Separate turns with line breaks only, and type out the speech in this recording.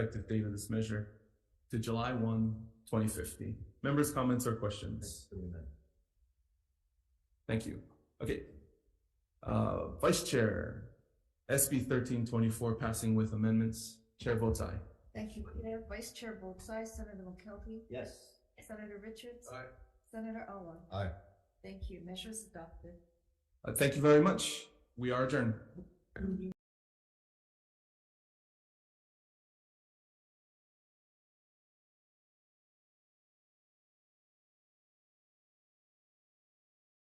effective date of this measure to July 1, 2050. Members' comments or questions? Thank you. Okay. Uh, Vice Chair, SB thirteen twenty-four passing with amendments. Chair votes aye.
Thank you, Peter. Vice Chair votes aye. Senator McKelvey?
Yes.
Senator Richards?
Aye.
Senator Owen?
Aye.
Thank you. Measures adopted.
Uh, thank you very much. We are adjourned.